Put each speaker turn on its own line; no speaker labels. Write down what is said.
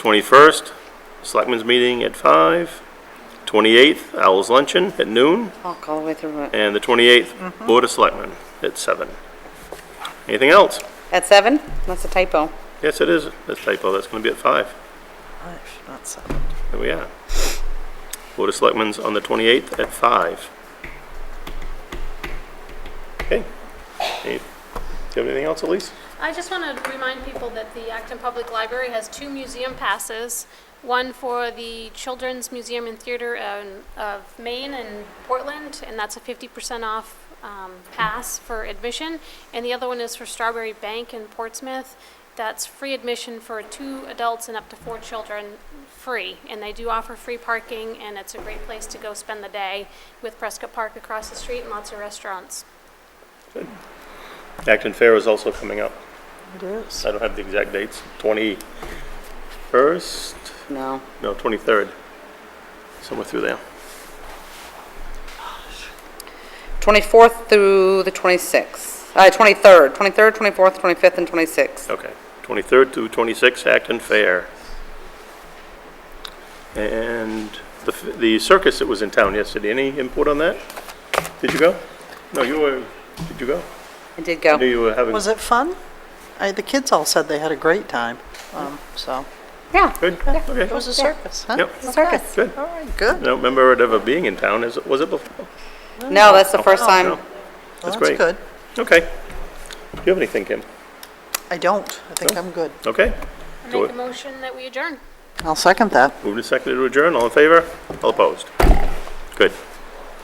21st, Selectmen's Meeting at 5. 28th, Owls Luncheon at noon.
Walk all the way through it.
And the
Mm-hmm.
28th, Board of Selectmen at 7. Anything else?
At seven? That's a typo.
Yes, it is, that's typo, that's going to be at 5.
Five, not seven.
There we are. Board of Selectmen's on the 28th at 5. Okay. Any- Do you have anything else, Elise?
I just want to remind people that the Acton Public Library has two museum passes, one for the Children's Museum and Theater um, of Maine and Portland, and that's a 50% off um, pass for admission, and the other one is for Strawberry Bank in Portsmouth. That's free admission for two adults and up to four children, free, and they do offer free parking, and it's a great place to go spend the day with Prescott Park across the street and lots of restaurants.
Acton Fair is also coming up.
It is.
I don't have the exact dates. 21st,
No.
no, 23rd. Somewhere through there.
24th through the 26th, uh, 23rd, 23rd, 24th, 25th, and 26th.
Okay. 23rd to 26th, Acton Fair. And the f- the circus that was in town yesterday, any input on that? Did you go? No, you were, did you go?
I did
I knew
go.
you were having,
Was it fun? I, the kids all said they had a great time, um, so.
Yeah.
good? Okay.
It was a circus, huh?
Yep.
a circus.
Good.
All right, good.
I don't remember it ever being in town, is, it? was it before?
No, that's the first time.
No.
Well,
great.
That's good.
Okay. Do you have anything, Kim?
I don't. I think
No.
I'm good.
Okay.
I
Do
Make
it.
a motion that we adjourn.
I'll second that.
Moved and seconded to adjourn, all in favor? All opposed? Good.